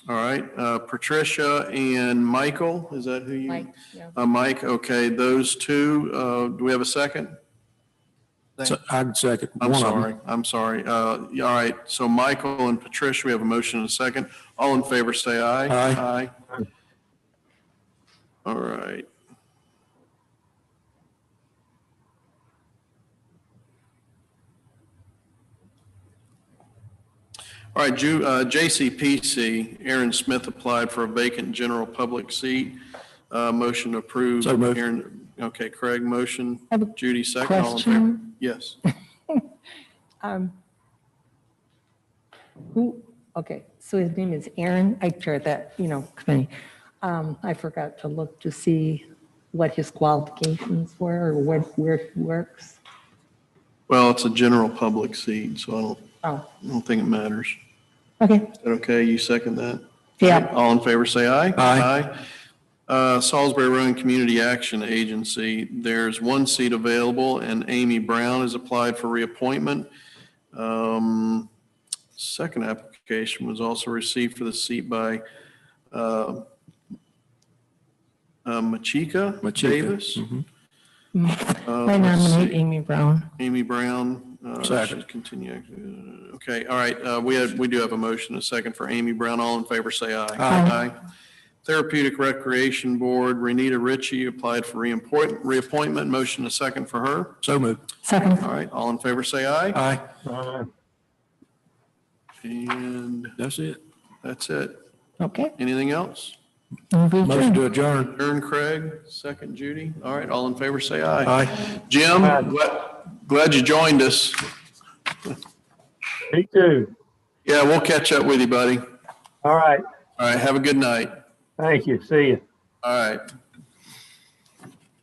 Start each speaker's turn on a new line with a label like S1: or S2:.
S1: All right, uh, Patricia and Michael, is that who you?
S2: Mike, yeah.
S1: Uh, Mike, okay, those two, uh, do we have a second?
S3: So I'd second.
S1: I'm
S3: one of 'em.
S1: sorry, I'm sorry. Uh, yeah, All right, so Michael and Patricia, we have a motion and a second. All in favor, say aye.
S3: Aye.
S1: Aye. All right. All right, Ju- uh, JCPC, Aaron Smith applied for a vacant general public seat. Uh, Motion approved.
S3: So moved.
S1: Aaron- Okay, Craig, motion.
S2: I have a
S1: Judy, second. All in favor?
S2: question.
S1: Yes.
S2: Who, okay, so his name is Aaron, I chair that, you know, committee. Um, I forgot to look to see what his qualifications were or what, where he works.
S1: Well, it's a general public seat, so I don't,
S2: Oh,
S1: I don't think it matters.
S2: okay,
S1: Is that okay? You second that?
S2: Yeah.
S1: All in favor, say aye.
S3: Aye.
S1: Aye. Uh, Salisbury Rowan Community Action Agency, there's one seat available, and Amy Brown has applied for reappointment. Um, Second application was also received for the seat by uh, uh, Machika
S3: Machika,
S1: Davis. Uh,
S2: I
S1: let's see.
S2: nominate Amy Brown.
S1: Amy Brown. uh,
S3: Second.
S1: should Continue. Uh, Okay, all right, uh, we have, we do have a motion, a second for Amy Brown. All in favor, say aye.
S2: Aye.
S1: Therapeutic Recreation Board, Renita Ritchie applied for reappointment, reappointment. Motion, a second for her.
S3: So moved.
S2: Second,
S1: All right, all in favor, say aye.
S3: Aye.
S1: And
S3: That's it.
S1: that's it.
S2: okay.
S1: Anything else?
S2: Move adjourned.
S3: Motion to adjourn.
S1: Ern Craig, second Judy. All right, all in favor, say aye.
S3: Aye.
S1: Jim, gla- glad you joined us.
S4: Me too.
S1: Yeah, we'll catch up with you, buddy. All
S4: All right.
S1: right, have a good night.
S4: Thank you. See you.
S1: All right.